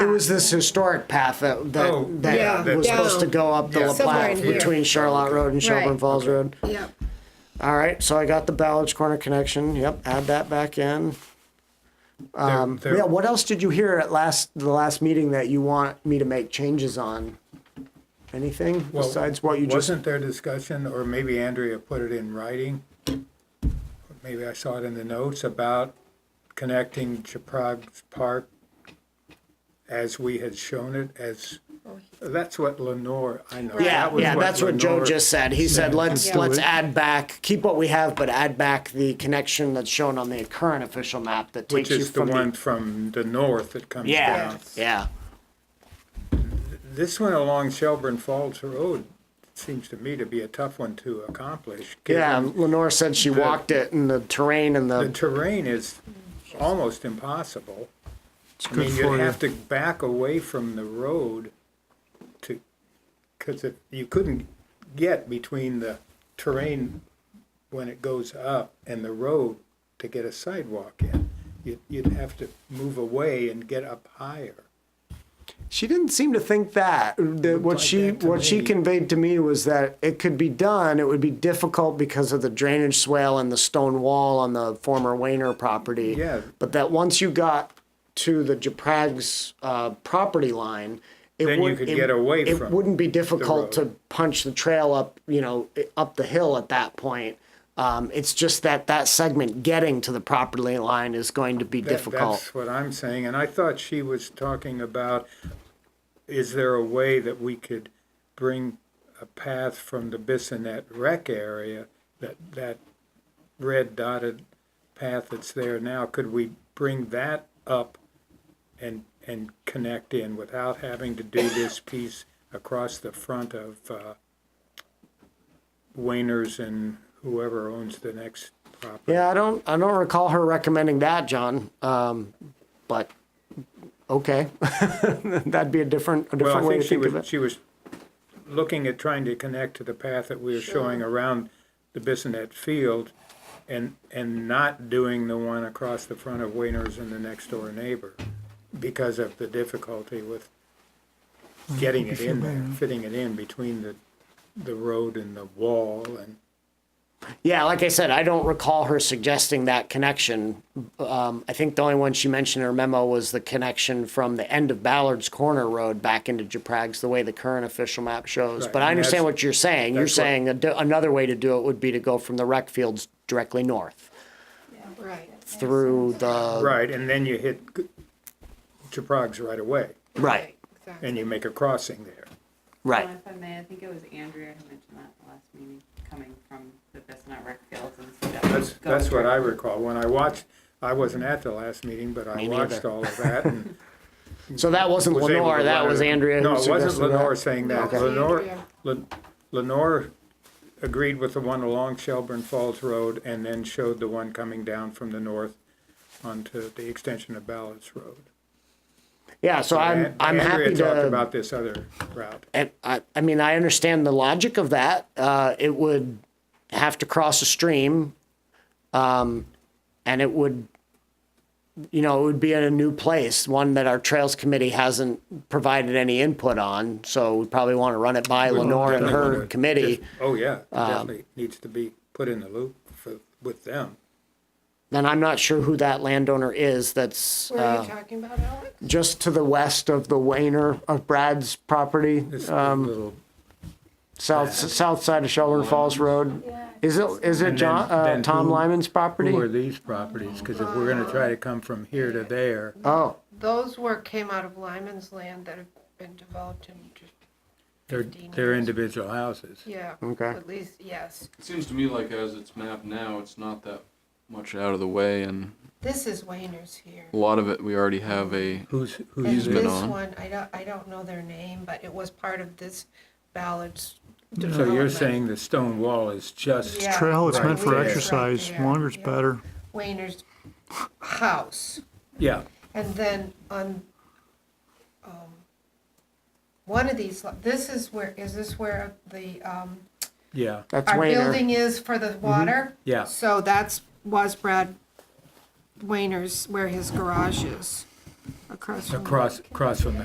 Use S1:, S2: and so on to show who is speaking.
S1: It was this historic path that,
S2: Oh,
S1: that,
S3: yeah,
S1: that was
S3: that-
S1: supposed to go up the
S2: Yeah.
S1: La
S3: Somewhere in
S1: Platte
S3: here.
S1: between Charlotte Road and Shelburne
S3: Right.
S1: Falls Road.
S3: Yep.
S1: All right, so I got the Ballard's Corner connection. Yep, add that back in.
S2: Um,
S1: Yeah, what else did you hear at last, the last meeting that you want me to make changes on? Anything
S2: Well,
S1: besides what you just,
S2: Wasn't there discussion, or maybe Andrea put it in writing? or Maybe I saw it in the notes about connecting Chaprags Park as we had shown it as, that's what Lenore, I know.
S1: yeah,
S2: that was
S1: yeah, that's what Joe
S2: Lenore-
S1: just said. He said, let's,
S3: Yeah.
S1: let's add back, keep what we have, but add back the connection that's shown on the current official map that takes
S2: Which
S1: you
S2: is the
S1: from
S2: one
S1: the.
S2: from the north that comes
S1: Yeah,
S2: down.
S1: yeah.
S2: This one along Shelburne Falls Road seems to me to be a tough one to accomplish.
S1: Yeah,
S2: given
S1: Lenore said she walked it and the terrain and
S2: The
S1: the,
S2: terrain is almost impossible. I
S4: good
S2: mean, you'd
S4: for you.
S2: have to back away from the road to, because you couldn't get between the terrain when it goes up and the road to get a sidewalk in. You'd, you'd have to move away and get up higher.
S1: she didn't seem to think that. The- what
S2: like
S1: she,
S2: that to
S1: what she
S2: me.
S1: conveyed to me was that it could be done, it would be difficult because of the drainage swale and the stone wall on the former Wayner property.
S2: Yeah.
S1: But that once you got to the Japrag's, uh, property line, it
S2: Then you
S1: would-
S2: could
S1: it-
S2: get away
S1: It
S2: from
S1: wouldn't be difficult
S2: road.
S1: to punch the trail up, you know, i- up the hill at that point. Um, it's just that that segment getting to the property line is going to be
S2: That-
S1: difficult.
S2: That's what I'm saying, and I thought she was talking about, is there a way that we could bring a path from the Bissonnet rec area, that, that red dotted path that's there now, could we bring that up and, and connect in without having to do this piece across the front of, uh, Wainers and whoever owns the next property?
S1: Yeah, I don't, I don't recall her recommending that, John. Um, but okay, that'd be a different, a different
S2: Well, I
S1: way
S2: think
S1: to
S2: she
S1: think of
S2: was,
S1: it.
S2: she was looking at trying to connect to the path that we were showing around the Bissonnet Field and, and not doing the one across the front of Wainers and the next door neighbor because of the difficulty with getting it in there, fitting it in between the, the road and the wall and,
S1: Yeah, like I said, I don't recall her suggesting that connection. Um, I think the only one she mentioned in her memo was the connection from the end of Ballard's Corner Road back into Japrag's, the way the current official map shows.
S2: Right,
S1: But I
S2: and
S1: understand
S2: that's-
S1: what you're saying. You're
S2: that's what-
S1: saying a d- another way to do it would be to go from the rec fields directly north
S3: Right.
S1: through the,
S2: right, and then you hit Chaprog's right away
S1: right,
S3: Exactly.
S2: and you make a crossing there.
S1: right.
S5: Well, If I may, I think it was Andrea who mentioned that at the last meeting, coming from the Bissonnet rec fields and stuff.
S2: That's, that's what I recall. When I watched, I wasn't at the last meeting, but I
S1: Me
S2: watched
S1: neither.
S2: all of that and.
S1: So that wasn't
S2: was able
S1: Lenore,
S2: to
S1: that
S2: write
S1: was
S2: it.
S1: Andrea who
S2: No, it wasn't
S1: suggested that.
S2: Lenore saying that.
S3: Okay.
S2: Lenore,
S3: Andrea.
S2: Len- Lenore agreed with the one along Shelburne Falls Road and then showed the one coming down from the north onto the extension of Ballard's Road.
S1: Yeah, so I'm,
S2: And
S1: I'm happy
S2: Andrea talked
S1: to,
S2: about this other route.
S1: and I, I mean, I understand the logic of that. Uh, it would have to cross a stream. Um, and it would, you know, it would be in a new place, one that our Trails Committee hasn't provided any input on. So we probably want to run it by Lenore and
S2: Definitely
S1: her
S2: would.
S1: committee.
S2: Oh, yeah,
S1: Um,
S2: definitely needs to be put in the loop for, with them.
S1: And I'm not sure who that landowner is that's,
S3: What are
S1: uh,
S3: you talking about, Alex?
S1: just to the west of the Wayner of Brad's property.
S2: This
S1: um,
S2: little,
S1: South, south side of Shelburne Falls Road. Is it, is it
S2: And
S1: John,
S2: then-
S1: uh,
S2: then
S1: Tom
S2: who-
S1: Lyman's property?
S2: who are these properties? Because if we're gonna try to come from here to there,
S1: Oh,
S3: Those were, came out of Lyman's land that have been developed in,
S2: they're, they're individual houses.
S3: yeah.
S1: Okay.
S3: At least, yes.
S6: It seems to me like as it's mapped now, it's not that much out of the way, and
S3: This is Wayner's here.
S6: a lot of it we already have a.
S2: Who's,
S3: And
S2: who's
S6: He's been
S3: this
S6: on.
S3: one, I don't, I don't know their name, but it was part of this Ballard's
S2: So you're
S3: development.
S2: saying the stone wall is just,
S3: Yeah.
S4: Trail, it's
S2: Right
S4: meant for
S2: there.
S4: exercise,
S3: Right there,
S4: longer's
S3: yeah.
S4: better.
S3: Wayner's house.
S2: yeah,
S3: And then on, um, one of these, lo- this is where, is this where the, um,
S2: yeah,
S1: that's
S3: our
S1: Wayner. Mm-hmm.
S3: building is for the water?
S2: yeah.
S3: So that's, was Brad Wayner's, where his garage is, across from.
S2: across, across from the